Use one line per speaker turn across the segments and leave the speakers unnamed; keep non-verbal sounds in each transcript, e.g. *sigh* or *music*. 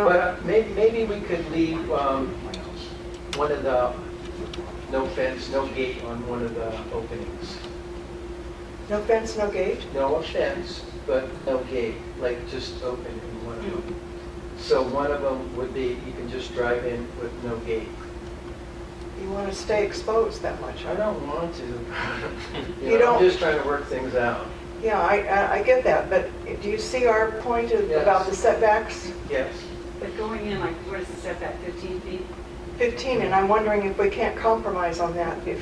But may- maybe we could leave um, one of the, no fence, no gate on one of the openings.
No fence, no gate?
No offense, but no gate, like just open in one of them. So one of them would be, you can just drive in with no gate.
You want to stay exposed that much, huh?
I don't want to.
You
*laughs* You know,
don't-
I'm just trying to work things out.
Yeah, I, I- I get that, but do you see our point of- about
Yes.
the setbacks?
Yes.
But going in, like, what is the setback, 15 feet?
15, and I'm wondering if we can't compromise on that. If,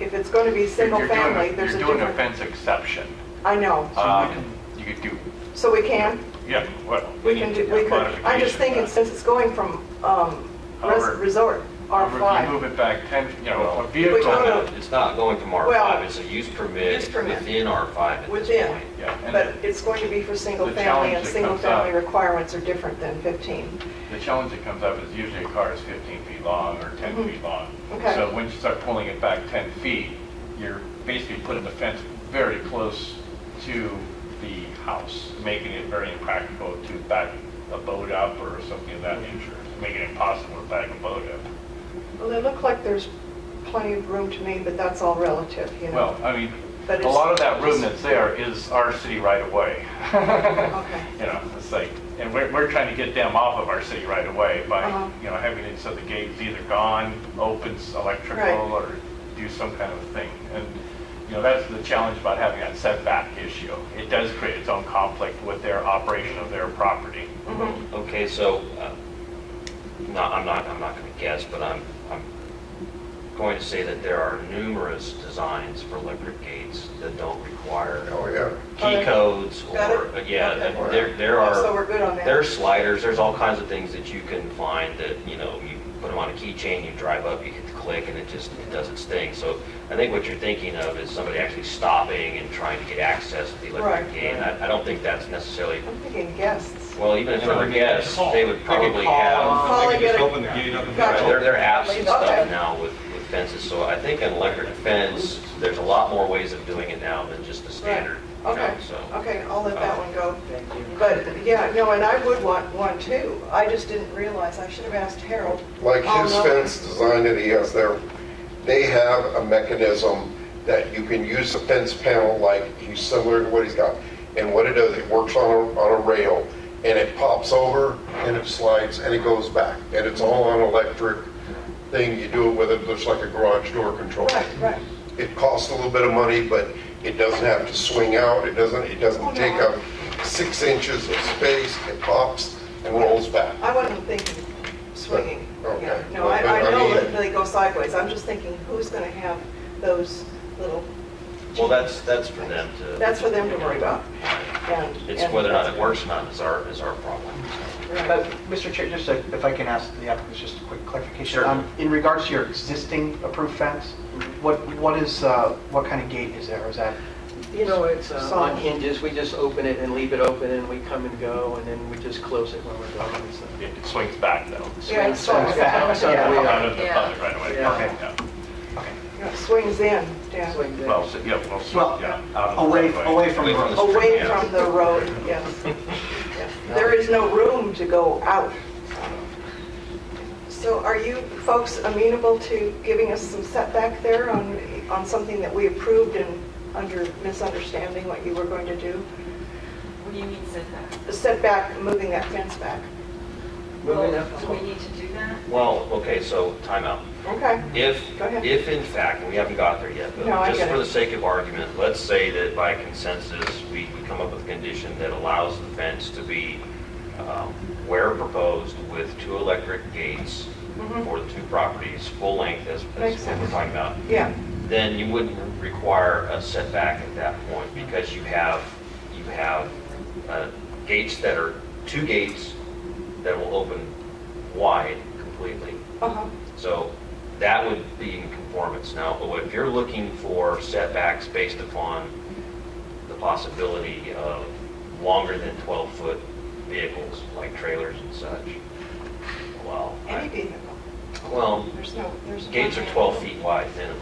if it's going to be
You're-
single
you're doing a-
family, there's a
You're doing a
different...
fence exception.
I know.
Um, You could do,
So we can?
yeah, well.
We can do, we could, I'm just thinking, since it's going from um, res-
However-
resort,
If you
R5.
move it back 10, you know, a
We go
vehicle,
to-
It's not going from
Well,
R5, it's a use permit
use permit.
within R5 at this
Within.
point.
yeah. and
But it's going to be for single
The
family,
challenge
and
that
single
comes up-
family requirements are different than 15.
The challenge that comes up is usually a car is 15 feet long or 10 feet long.
Mm-hmm. Okay.
So when you start pulling it back 10 feet, you're basically putting the fence very close to the house, making it very impractical to back a boat up or something of that nature, making it impossible to back a boat up.
Well, they look like there's plenty of room to me, but that's all relative, you know?
Well, I mean,
But
a
it's-
lot of that room that's there is our city right away.
Okay.
*laughs* You know, it's like, and we're, we're trying to get them off of our city right away by,
Uh-huh.
you know, having it so the gate's either gone, opens
Right.
electrical, or do some kind of thing. And, you know, that's the challenge about having that setback issue. It does create its own conflict with their operation of their property.
Mm-hmm.
Okay, so, uh, no, I'm not, I'm not going to guess, but I'm, I'm going to say that there are numerous designs for electric gates that don't require
Oh, yeah.
Okay.
key codes
Got
or, uh,
it?
yeah,
Okay. Oh,
there, there
So we're
are,
good on that?
there are sliders, there's all kinds of things that you can find that, you know, you put them on a keychain, you drive up, you hit the click, and it just, it does its thing. So I think what you're thinking of is somebody actually stopping and trying to get access to the electric
Right.
gate. And I, I don't think that's necessarily
I'm thinking guests.
Well, even if they were guests, they would probably have,
Call and get a-
the gate up and
Gotcha.
there there are apps and stuff
Okay.
now with with fences, so I think an electric fence, there's a lot more ways of doing it now than just the standard, you know,
Okay,
so. Uh,
okay, I'll let that one go.
Thank you.
But, yeah, no, and I would want one too. I just didn't realize, I should have asked Harold. Oh,
Like
I'll
his
know.
fence design that he has there, they have a mechanism that you can use the fence panel like, he's similar to what he's got. And what it does, it works on a, on a rail and it pops over and it slides and it goes back. And it's all on electric thing. You do it with it, looks like a garage door control.
Right, right.
It costs a little bit of money, but it doesn't have to swing out. It doesn't, it
Oh, no.
doesn't take up six inches of space. It pops and rolls back.
I wasn't thinking swinging.
Okay.
Yeah, No, I,
Well,
I
but I
know
mean-
that they go sideways. I'm just thinking, who's going to have those little,
Well, that's, that's for them to,
that's for them to worry about. And-
it's
and
whether or not it
that's-
works or not is our, is our problem.
Right.
Uh, Mr. Chair, just a- if I can ask the applicant just a quick clarification.
Sure.
Um, In regards to your existing approved fence, what, what is, uh, what kind of gate is there? Is that,
You know, it's uh,
Solid.
on hinges, we just open it and leave it open, and we come and go, and then we just close it when we're done, so.
It it swings back though.
Yeah, it's
So it's
back.
outside
Yeah.
we are-
Out of the
Yeah.
public right away.
Yeah.
Okay.
Yeah.
Yeah, Swings in, yeah.
Swing there.
Well, so- yeah, well, so-
well,
yeah. out of the
away,
right away.
away from the
Away from
road?
the-
Away
Yeah.
from the road, yes.
*laughs*
Yes. There is no room to go out. So are you folks amenable to giving us some setback there on, on something that we approved and under misunderstanding what you were going to do?
What do you mean setback?
The setback, moving that fence back.
Moving
Well,
up.
Do we need to do that?
Well, okay, so timeout.
Okay,
If,
Go ahead.
if in fact, and we haven't got there yet, but
No, I
just
get
for
it.
the sake of argument, let's say that by consensus, we we come up with a condition that allows the fence to be um, where proposed with two electric gates for the two properties, full length as,
Mm-hmm. Makes
as what we're
sense.
talking about,
yeah,
then you wouldn't require a setback at that point because you have, you have uh, gates that are, two gates that will open wide completely.
uh-huh,
So that would be in conformance. Now, if you're looking for setbacks based upon the possibility of longer than 12-foot vehicles, like trailers and such, well,
any
I-
vehicle,
well,
there's no, there's.
gates are
one-
12 feet wide minimum,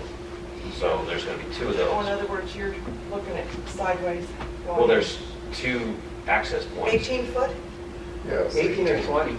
so there's going to be two of
Oh, in
those.
other words, you're looking at sideways. going
Well, there's two access points.
18 foot?
Yes.
18 or 20.